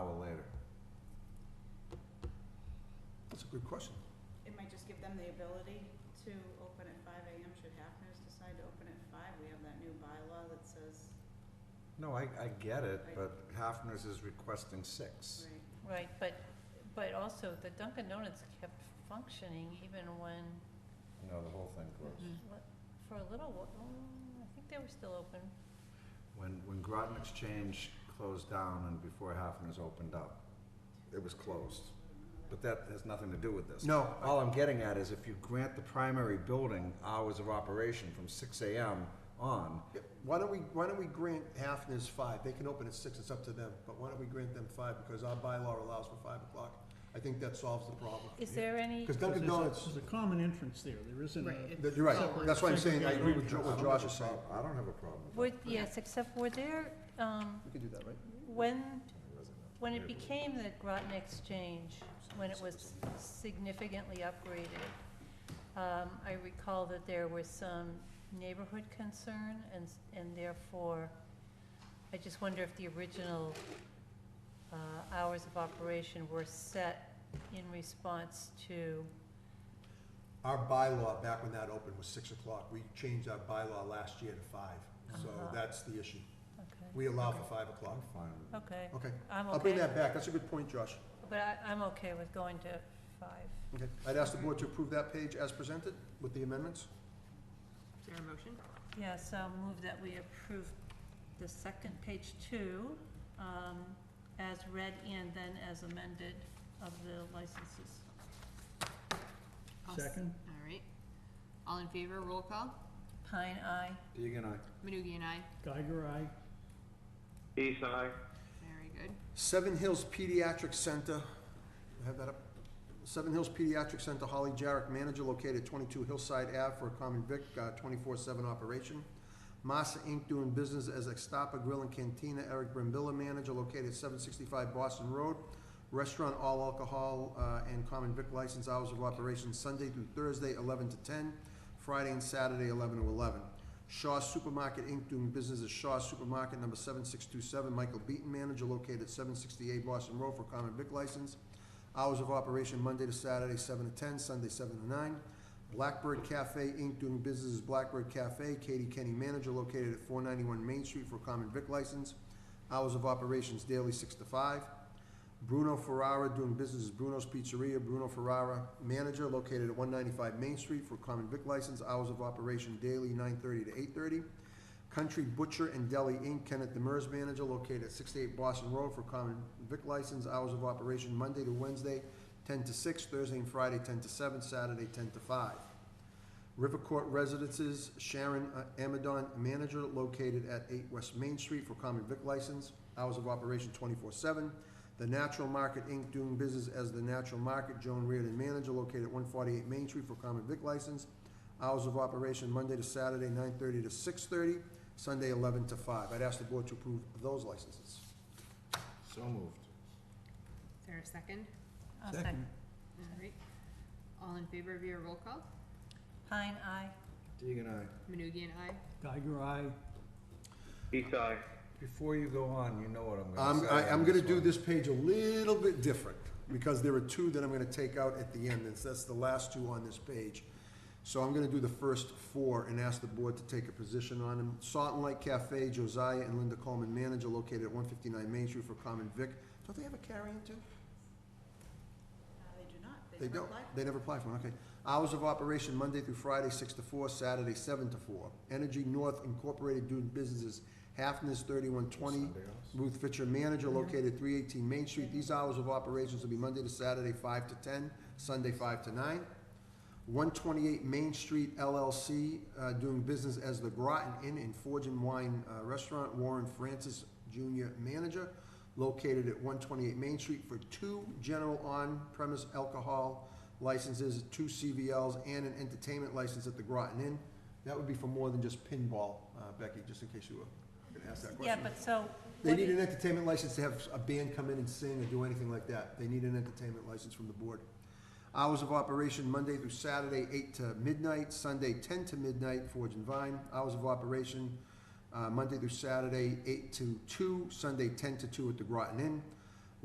good question. It might just give them the ability to open at five AM, should Hafner's decide to open at five, we have that new bylaw that says, No, I, I get it, but Hafner's is requesting six. right, Right, but, but also the Dunkin' Donuts kept functioning even when, No, the whole thing closed. for a little, wh- mm, I think they were still open. When, when Groton Exchange closed down and before Hafner's opened up, it was closed. But that has nothing to do with this. No, All I'm getting at is if you grant the primary building hours of operation from six AM on, why don't we, why don't we grant Hafner's five? They can open at six, it's up to them, but why don't we grant them five? Because our bylaw allows for five o'clock. I think that solves the problem. Is there any, Because Dunkin' There's a- Donuts, There's a common entrance there, there isn't Right, a, it- that- you're right, Separate- that's what I'm saying, I agree with Jo- I what don't Josh have is a saying. prob- I don't have a problem with that. would, yes, except were there, um, We can do that, right? when, when it became the Groton Exchange, when it was significantly upgraded, um, I recall that there was some neighborhood concern and, s- and therefore, I just wonder if the original, uh, hours of operation were set in response to, Our bylaw, back when that opened, was six o'clock. We changed our bylaw last year to five, so Uh-huh. that's the issue. okay, We allow for five o'clock. I'm fine with it. okay, Okay, I'm I'll bring okay, that back, that's a good point, Josh. but I, I'm okay with going to five. Okay, I'd ask the board to approve that page as presented with the amendments. is there a motion? Yeah, so I'll move that we approve the second page two, um, as read and then as amended of the licenses. I'll s- second, All right. All in favor, roll call. Pine, aye. Oh. Deegan, aye. Manugie and I. Geiger, I, East side. Very good. Seven Hills Pediatric Center, I have that up. Seven Hills Pediatric Center, Holly Jarrett, manager located twenty-two Hillside Ave for a common vic, uh, twenty-four seven operation. Massa Inc. doing business as Estapa Grill and Cantina, Eric Brambilla, manager located seven sixty-five Boston Road. Restaurant all alcohol, uh, and common vic license hours of operation Sunday through Thursday, eleven to ten, Friday and Saturday, eleven to eleven. Shaw Supermarket Inc. doing business as Shaw Supermarket number seven six two seven, Michael Beaton, manager located seven sixty-eight Boston Road for common vic license. Hours of operation Monday to Saturday, seven to ten, Sunday, seven to nine. Blackbird Cafe Inc. doing business as Blackbird Cafe, Katie Kenny, manager located at four ninety-one Main Street for common vic license. Hours of operations daily, six to five. Bruno Ferrara doing business as Bruno's Pizzeria, Bruno Ferrara, manager located at one ninety-five Main Street for common vic license. Hours of operation daily, nine thirty to eight thirty. Country Butcher and Deli Inc., Kenneth Demers, manager, located at 68 Boston Road for common vic license, hours of operation Monday to Wednesday, 10 to 6, Thursday and Friday, 10 to 7, Saturday, 10 to 5. River Court Residences, Sharon uh, Amadon, manager, located at 8 West Main Street for common vic license, hours of operation 24/7. The Natural Market Inc., doing business as The Natural Market, Joan Reardon, manager, located at 148 Main Street for common vic license, Hours of operation Monday to Saturday, nine thirty to six thirty, Sunday eleven to five. I'd ask the board to approve those licenses. So moved. Is there a second? I'll second, All right. All in favor of your roll call? Uh, Pine, aye. Deegan, aye. Manugie and I. Geiger, I, East side. Before you go on, you know what I'm gonna I'm, say. I, on I'm gonna do one. this page a little bit different, because there are two that I'm gonna take out at the end, and that's the last two on this page. So I'm gonna do the first four and ask the board to take a position on them. Salt and Light Cafe, Josiah and Linda Coleman, manager, located at one fifty-nine Main Street for Common Vic. Don't they have a carry-in too? Uh, they do not, They they never don't, apply. they never apply for one, okay. Hours of operation, Monday through Friday, six to four, Saturday, seven to four. Energy North Incorporated doing businesses, Halfness thirty-one twenty, Ruth Fitcher, manager, located three eighteen Main Street. These hours of operations will be Monday to Saturday, five to ten, Sunday, five to nine. One twenty-eight Main Street LLC, uh, doing business as the Groton Inn and Forge and Wine uh, Restaurant, Warren Francis Junior, manager, located at one twenty-eight Main Street for two general on-premise alcohol licenses, two CVLs, and an entertainment license at the Groton Inn. That would be for more than just pinball, uh, Becky, just in case you were gonna ask that Yeah, question. but so, They what need do an you- entertainment license to have a band come in and sing or do anything like that. They need an entertainment license from the board. Hours of operation Monday through Saturday, eight to midnight, Sunday, ten to midnight, Forge and Vine. Hours of operation, uh, Monday through Saturday, eight to two, Sunday, ten to two at the Groton Inn.